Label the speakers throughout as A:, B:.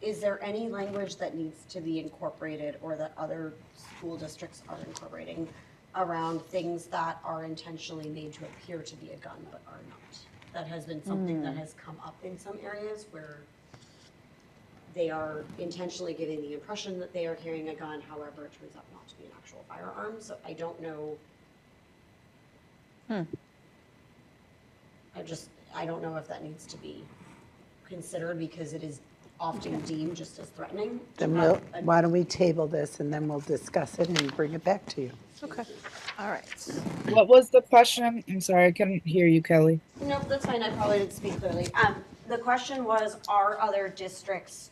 A: is there any language that needs to be incorporated or that other school districts are incorporating around things that are intentionally made to appear to be a gun but are not? That has been something that has come up in some areas where they are intentionally giving the impression that they are carrying a gun, however, it turns out not to be an actual firearm, so I don't know.
B: Hmm.
A: I just, I don't know if that needs to be considered because it is often deemed just as threatening. to
B: Then
A: have
B: we'll,
A: a-
B: why don't we table this and then we'll discuss it and bring it back to you?
C: Okay, all right.
D: What was the question? I'm sorry, I couldn't hear you, Kelly.
A: Nope, that's fine, I probably didn't speak clearly. Um, the question was, are other districts,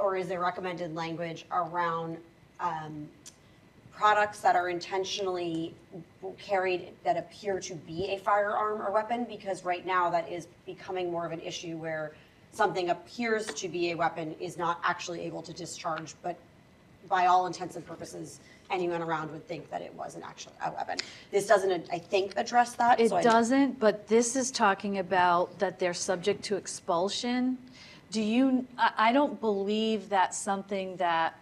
A: or is there recommended language around, um, products that are intentionally carried that appear to be a firearm or weapon? Because right now, that is becoming more of an issue where something appears to be a weapon is not actually able to discharge, but by all intents and purposes, anyone around would think that it was an actual, a weapon. This doesn't, I think, address that,
C: It
A: so I-
C: doesn't, but this is talking about that they're subject to expulsion. Do you, I, I don't believe that something that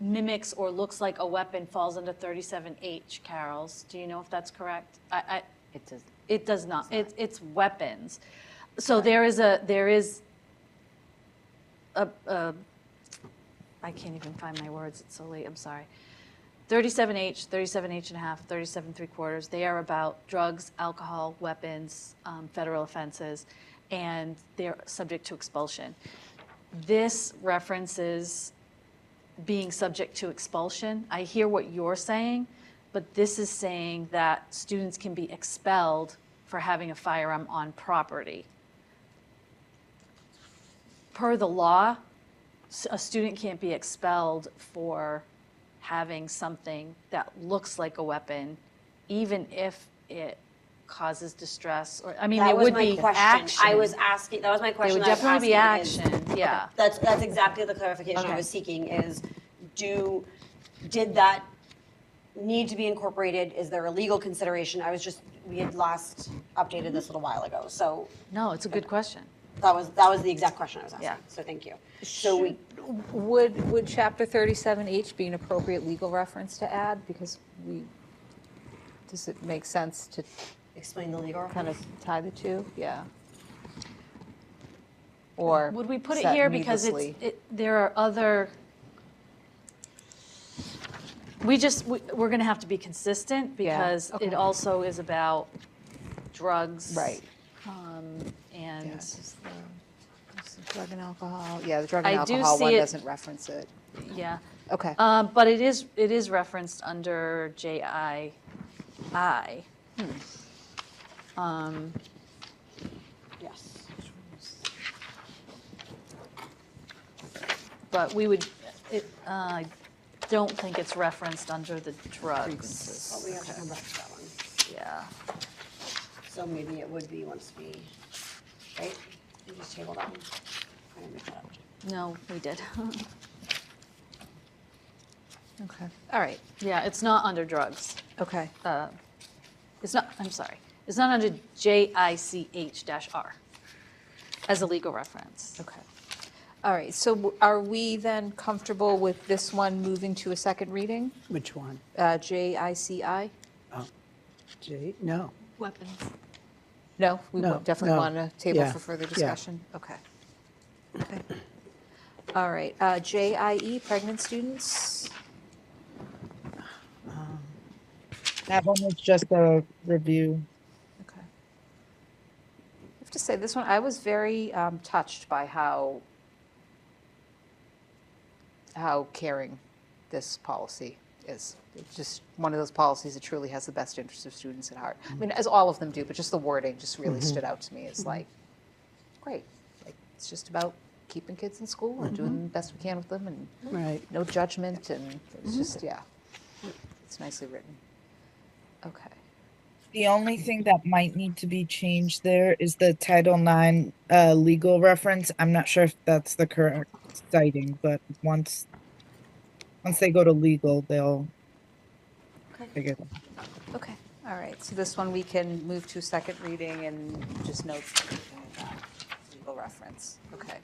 C: mimics or looks like a weapon falls under 37H, Carol's. Do you know if that's correct? I, I,
E: It does,
C: it does not, it's, it's weapons. So there is a, there is a, a, I can't even find my words, it's so late, I'm sorry. 37H, 37H and a half, 37 three quarters, they are about drugs, alcohol, weapons, um, federal offenses, and they're subject to expulsion. This references being subject to expulsion. I hear what you're saying, but this is saying that students can be expelled for having a firearm on property. Per the law, s- a student can't be expelled for having something that looks like a weapon, even if it causes distress or, I mean, there
A: That was
C: would
A: my
C: be
A: question.
C: action.
A: I was asking, that was my
C: There
A: question.
C: would
A: I was
C: definitely be
A: asking is-
C: action, yeah.
A: That's, that's exactly the clarification I
C: Okay.
A: was seeking is, do, did that need to be incorporated? Is there a legal consideration? I was just, we had last updated this a little while ago, so
C: No, it's a good question.
A: that was, that was the exact question I was asking,
C: Yeah.
A: so thank you. So we,
E: would, would chapter 37H be an appropriate legal reference to add? Because we, does it make sense to
A: explain the legal
E: kind
A: reference.
E: of tie the two? Yeah. Or.
C: Would we put
E: is
C: it
E: that
C: here because it's,
E: needlessly-
C: it, there are other, we just, we, we're gonna have to be consistent because it
E: okay.
C: also is about drugs.
E: Right. Yeah,
C: And,
E: it's just the- it's the Drug and alcohol, yeah, the drug
C: I
E: and
C: do
E: alcohol one
C: see it-
E: doesn't reference it.
C: yeah.
E: Okay.
C: Um, but it is, it is referenced under JII. Um,
A: Yes.
C: but we would, it, uh, I don't think it's referenced under the drugs,
A: But we have to come back to that one.
C: yeah.
A: So maybe it would be once we, right? We just table that one. I didn't make that up.
C: No, we did.
E: Okay. All right.
C: Yeah, it's not under drugs.
E: Okay.
C: uh, It's not, I'm sorry, it's not under JICH-R as a legal reference.
E: Okay. All right, so w- are we then comfortable with this one moving to a second reading?
B: Which one?
E: Uh, JICI?
B: J, no.
C: Weapons.
E: No, we
B: No,
E: wa- definitely
B: no,
E: want a table
B: yeah,
E: for further
B: yeah.
E: discussion? Okay. Okay. All right, uh, JIE, pregnant students?
D: That one was just a review.
E: Okay. I have to say, this one, I was very um, touched by how, how caring this policy is. It's just one of those policies that truly has the best interests of students at heart. I mean, as all of them do, but just the wording just really stood out to me as like, great. Like, it's just about keeping kids in school and doing the best we can with them and
B: Right.
E: no judgment and it's just, yeah. It's nicely written. Okay.
D: The only thing that might need to be changed there is the Title IX uh, legal reference. I'm not sure if that's the current citing, but once once they go to legal, they'll figure it out.
E: Okay, all right, so this one we can move to second reading and just note that legal reference, okay.